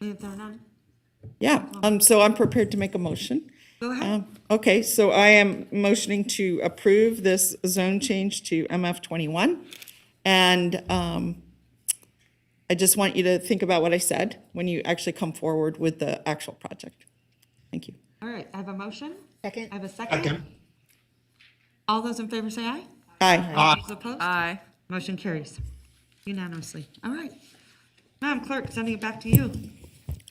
If there are none, Yeah, um, so I'm prepared to make a motion. go ahead. Um, okay, so I am motioning to approve this zone change to MF twenty-one. And, um, I just want you to think about what I said when you actually come forward with the actual project. Thank you. All right, I have a motion. Second. I have a second. All those in favor say aye. Aye. Those opposed? Aye. Motion carries unanimously. All right. Madam Clerk, sending it back to you.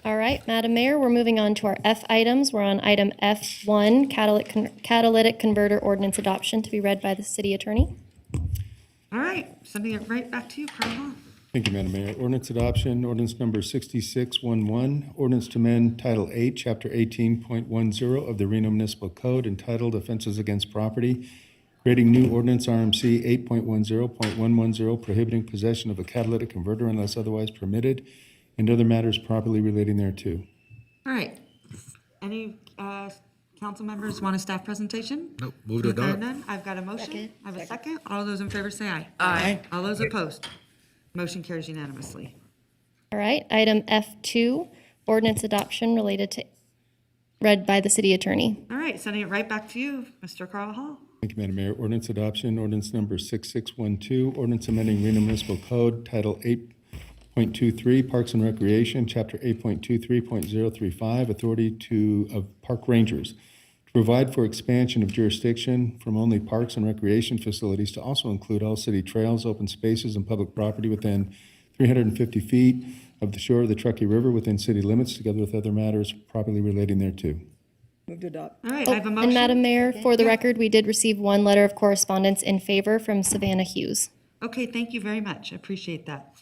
All right, Madam Mayor, we're moving on to our F items. We're on item F1, catalytic con- catalytic converter ordinance adoption to be read by the city attorney. All right, sending it right back to you, Carl. Thank you, Madam Mayor. Ordinance adoption, ordinance number 6611, ordinance to amend Title 8, Chapter 18.10 of the Reno Municipal Code entitled Offenses Against Property, creating new ordinance RMC 8.10.110 prohibiting possession of a catalytic converter unless otherwise permitted, and other matters properly relating thereto. All right. Any uh, council members want a staff presentation? Nope, move to If there are adopt. none, I've got a motion. Second. I have a second. All those in favor say aye. Aye. All those opposed? Motion carries unanimously. All right, item F2, ordinance adoption related to, read by the city attorney. All right, sending it right back to you, Mr. Carl Hall. Thank you, Madam Mayor. Ordinance adoption, ordinance number 6612, ordinance amending Reno Municipal Code, Title 8.23, Parks and Recreation, Chapter 8.23.035, Authority to, of Park Rangers, to provide for expansion of jurisdiction from only parks and recreation facilities to also include all city trails, open spaces, and public property within 350 feet of the shore of the Truckee River within city limits, together with other matters properly relating thereto. All right, I have a Oh, And motion. Madam Mayor, for the record, we did receive one letter of correspondence in favor from Savannah Hughes. Okay, thank you very much. I appreciate that.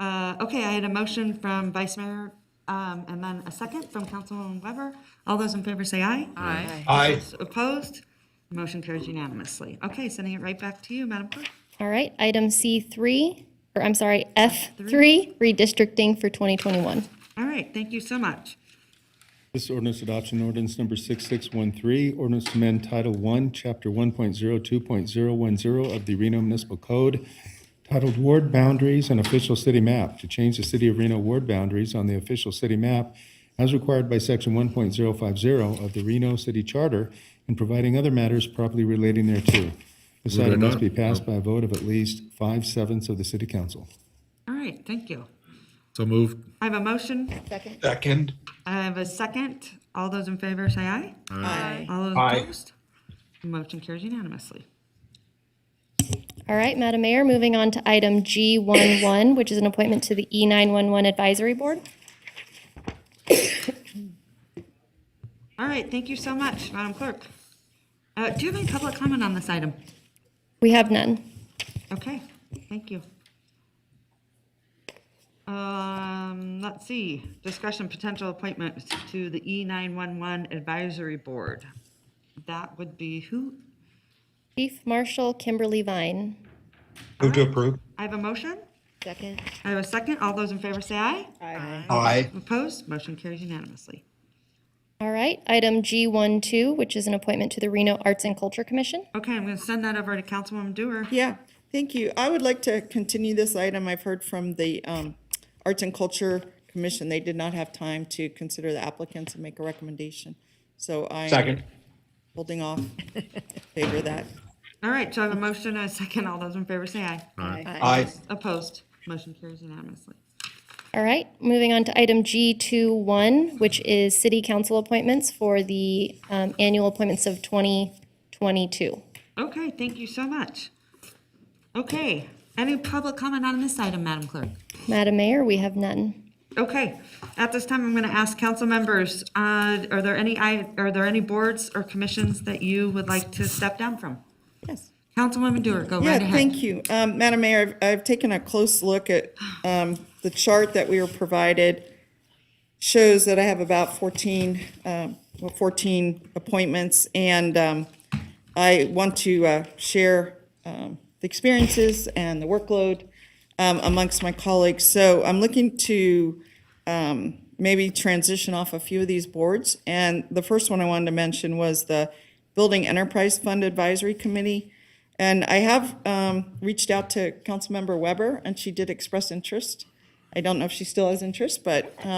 Uh, Okay, I had a motion from Vice Mayor um, and then a second from Councilwoman Weber. All those in favor say aye. Aye. Aye. Opposed? Motion carries unanimously. Okay, sending it right back to you, Madam Clerk. All right, item C3, or I'm sorry, F3, redistricting for 2021. All right, thank you so much. This ordinance adoption ordinance number 6613, ordinance to amend Title 1, Chapter 1.02.010 of the Reno Municipal Code titled Ward Boundaries and Official City Map to change the City of Reno ward boundaries on the official city map as required by Section 1.050 of the Reno City Charter and providing other matters properly relating thereto. This Move it item must on. be passed by a vote of at least five sevenths of the City Council. All right, thank you. So moved. I have a motion. Second. Second. I have a second. All those in favor say aye. Aye. All those Aye. opposed? Motion carries unanimously. All right, Madam Mayor, moving on to item G11, which is an appointment to the E E911 Advisory Board. All right, thank you so much, Madam Clerk. Uh, Do you have any public comment on this item? We have none. Okay, thank you. Um, let's see, discussion potential appointments to the E nine one one advisory board. That would be who? Chief Marshal Kimberly Vine. Move to approve. I have a motion? Second. I have a second. All those in favor say aye. Aye. Aye. Opposed? Motion carries unanimously. All right, item G12, which is an appointment to the Reno Arts and Culture Commission. Okay, I'm gonna send that over to Councilwoman Dewar. Yeah, thank you. I would like to continue this item. I've heard from the um, Arts and Culture Commission, they did not have time to consider the applicants and make a recommendation. So I'm holding off, favor that. All right, so I have a motion and a second. All those in favor say aye. Aye. Opposed? Motion carries unanimously. All right, moving on to item G21, which is city council appointments for the um, annual appointments of 2022. Okay, thank you so much. Okay, any public comment on this item, Madam Clerk? Madam Mayor, we have none. Okay, at this time, I'm going to ask council members, uh, are there any, i- are there any boards or commissions that you would like to step down from? Yes. Councilwoman Dewar, go right Yeah, ahead. thank you. Um, Madam Mayor, I've, I've taken a close look at, um, the chart that we were provided. Shows that I have about fourteen, um, well, fourteen appointments, and, um, I want to, uh, share, um, the experiences and the workload, um, amongst my colleagues. So I'm looking to, maybe transition off a few of these boards. And the first one I wanted to mention was the Building Enterprise Fund Advisory Committee. And I have um, reached out to Councilmember Weber, and she did express interest. I don't know if she still has interest, but